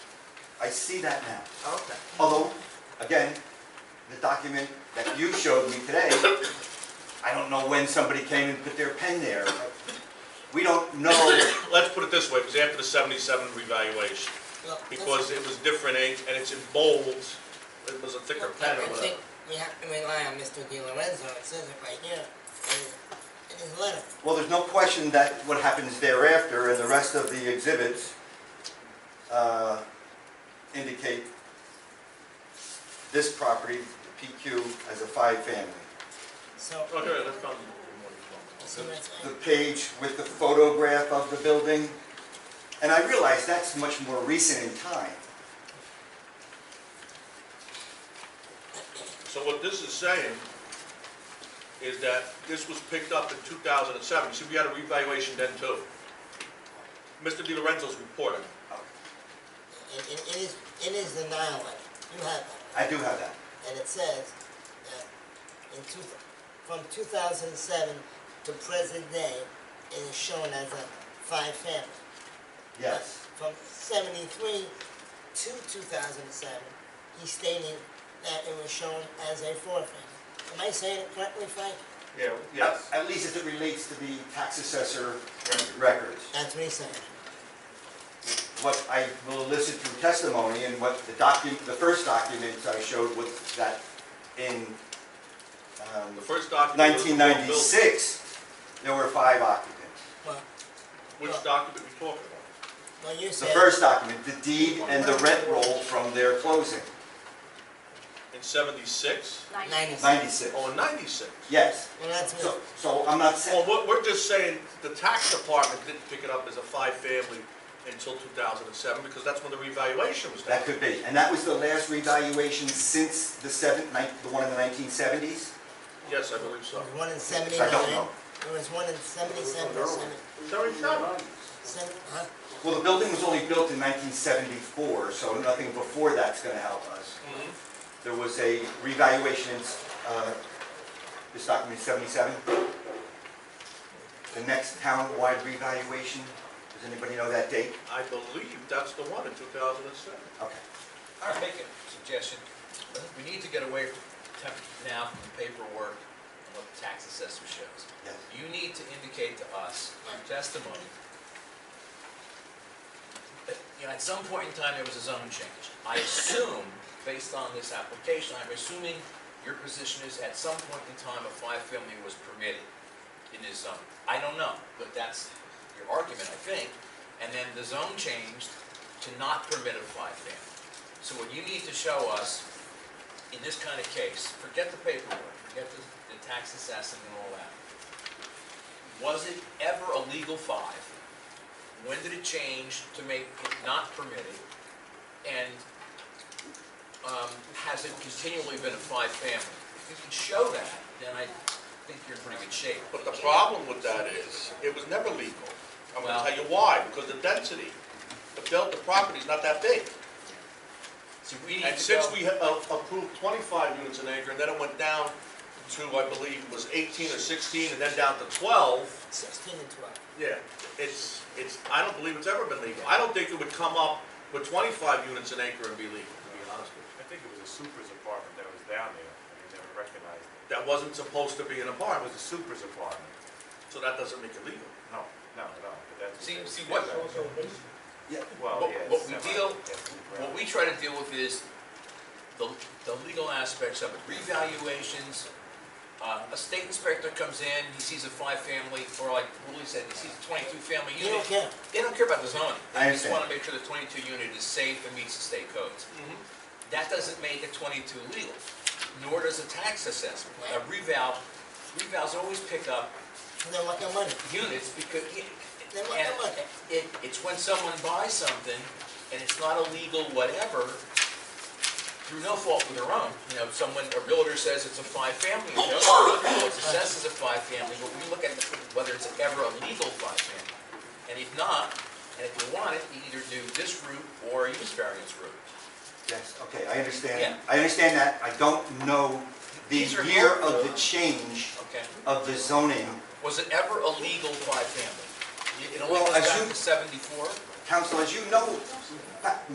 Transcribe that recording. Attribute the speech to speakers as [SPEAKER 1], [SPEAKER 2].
[SPEAKER 1] I see that now.
[SPEAKER 2] Okay.
[SPEAKER 1] Although, again, the document that you showed me today, I don't know when somebody came and put their pen there. We don't know,
[SPEAKER 3] Let's put it this way, it was after the 77 revaluation,
[SPEAKER 2] Look, this-
[SPEAKER 3] because it was different ink, and it's in bold, it was a thicker
[SPEAKER 2] look,
[SPEAKER 3] pen
[SPEAKER 2] I
[SPEAKER 3] or
[SPEAKER 2] think
[SPEAKER 3] whatever.
[SPEAKER 2] We have to rely on Mr. Di Lorenzo, it says it right here, in his- in his letter.
[SPEAKER 1] well, there's no question that what happens thereafter and the rest of the exhibits uh, indicate this property, PQ, as a five-family.
[SPEAKER 2] So,
[SPEAKER 3] Oh, here, that's not-
[SPEAKER 2] so that's,
[SPEAKER 1] the page with the photograph of the building. And I realize that's much more recent in time.
[SPEAKER 3] So what this is saying is that this was picked up in 2007, see, we had a revaluation then too. Mr. Di Lorenzo's report,
[SPEAKER 2] it, it it is, it is the Nile letter, you have that.
[SPEAKER 1] I do have that.
[SPEAKER 2] and it says that in two, from two thousand and seven to present day, it is shown as a five family.
[SPEAKER 1] Yes.
[SPEAKER 2] From seventy-three to two thousand and seven, he stated that it was shown as a four family. Am I saying it correctly, Frank?
[SPEAKER 3] yeah, yes.
[SPEAKER 1] At at least as it relates to the tax assessor records.
[SPEAKER 2] That's what he said.
[SPEAKER 1] What I will elicit through testimony and what the document, the first document I showed was that in um,
[SPEAKER 3] The first document was the whole building.
[SPEAKER 1] 1996, there were five occupants.
[SPEAKER 2] Well,
[SPEAKER 3] Which document we talking about?
[SPEAKER 2] well, you
[SPEAKER 1] The
[SPEAKER 2] said.
[SPEAKER 1] first document, the deed and the rent roll from their closing,
[SPEAKER 3] In 76?
[SPEAKER 2] Ninety-six.
[SPEAKER 1] 96.
[SPEAKER 3] Oh, in 96?
[SPEAKER 1] Yes.
[SPEAKER 2] Well, that's
[SPEAKER 1] So,
[SPEAKER 2] what,
[SPEAKER 1] so I'm not saying.
[SPEAKER 3] Well, we're, we're just saying the tax department didn't pick it up as a five-family until 2007, because that's when the revaluation was done.
[SPEAKER 1] That could be, and that was the last revaluation since the seventh, nine- the one in the nineteen seventies?
[SPEAKER 3] Yes, I believe so.
[SPEAKER 2] there was one in
[SPEAKER 1] I
[SPEAKER 2] seventy-nine,
[SPEAKER 1] don't know.
[SPEAKER 2] there was one in seventy-seven, or seven, seven, huh?
[SPEAKER 1] Well, the building was only built in nineteen seventy-four, so nothing before that's gonna help us.
[SPEAKER 3] Mhm.
[SPEAKER 1] There was a revaluation, in, uh, this document seventy-seven? The next town-wide revaluation, does anybody know that date?
[SPEAKER 3] I believe that's the one in 2007.
[SPEAKER 1] Okay.
[SPEAKER 4] I'll make a suggestion. We need to get away from temp- now from the paperwork and what the tax assessor shows.
[SPEAKER 1] Yes.
[SPEAKER 4] You need to indicate to us, through testimony, that, you know, at some point in time, there was a zone change. I assume, based on this application, I'm assuming your position is at some point in time, a five-family was permitted in this zone. I don't know, but that's your argument, I think. And then the zone changed to not permit a five-family. So what you need to show us, in this kind of case, forget the paperwork, forget the, the tax assessment and all that. Was it ever a legal five? When did it change to make it not permitted? And, um, has it continually been a five-family? If you can show that, then I think you're in pretty good shape.
[SPEAKER 3] But the problem with that is, it was never legal. I'm gonna tell you why, because the density, the built, the property's not that big.
[SPEAKER 4] So we need to
[SPEAKER 3] And since
[SPEAKER 4] go-
[SPEAKER 3] we ha- uh, approved 25 units an acre, and then it went down to, I believe, it was 18 or 16, and then down to 12,
[SPEAKER 2] sixteen and twelve.
[SPEAKER 3] Yeah, it's, it's, I don't believe it's ever been legal. I don't think it would come up with twenty-five units an acre and be legal, to be honest with
[SPEAKER 5] I think it was a super's apartment that was down there, and they never recognized it.
[SPEAKER 3] you. That wasn't supposed to be an
[SPEAKER 5] It
[SPEAKER 3] apartment,
[SPEAKER 5] was a super's apartment.
[SPEAKER 3] so that doesn't make it legal.
[SPEAKER 5] No, no, no, but that's.
[SPEAKER 4] See- see, what-
[SPEAKER 5] Well,
[SPEAKER 4] what-
[SPEAKER 5] yeah.
[SPEAKER 4] what we
[SPEAKER 5] semi-
[SPEAKER 4] deal-
[SPEAKER 5] yeah,
[SPEAKER 4] What we try to deal with is the, the legal aspects of it, revaluations. Uh, a state inspector comes in, he sees a five-family, or like Willie said, he sees a twenty-two-family
[SPEAKER 2] You don't
[SPEAKER 4] unit.
[SPEAKER 2] care.
[SPEAKER 4] They don't care about the zoning.
[SPEAKER 1] I
[SPEAKER 4] They just
[SPEAKER 1] understand.
[SPEAKER 4] wanna make sure the twenty-two unit is safe and meets the state codes. That doesn't make a twenty-two legal, nor does a tax assessment. A reval, revals always pick up
[SPEAKER 2] They want their money.
[SPEAKER 4] units because,
[SPEAKER 2] They want their
[SPEAKER 4] and
[SPEAKER 2] money.
[SPEAKER 4] it, it's when someone buys something and it's not illegal, whatever, through no fault of their own. You know, someone, a realtor says it's a five-family, you know, it's assessed as a five-family, but we look at whether it's ever a legal five-family. And if not, and if you want it, you either do this route or a use variance route.
[SPEAKER 1] Yes, okay, I understand.
[SPEAKER 4] Yeah.
[SPEAKER 1] I understand that. I don't know the
[SPEAKER 4] These are
[SPEAKER 1] year of
[SPEAKER 4] helpful.
[SPEAKER 1] the change
[SPEAKER 4] Okay.
[SPEAKER 1] of the zoning.
[SPEAKER 4] Was it ever a legal five-family? It only
[SPEAKER 1] Well,
[SPEAKER 4] goes
[SPEAKER 1] as
[SPEAKER 4] back
[SPEAKER 1] you-
[SPEAKER 4] to seventy-four?
[SPEAKER 1] Council, as you know,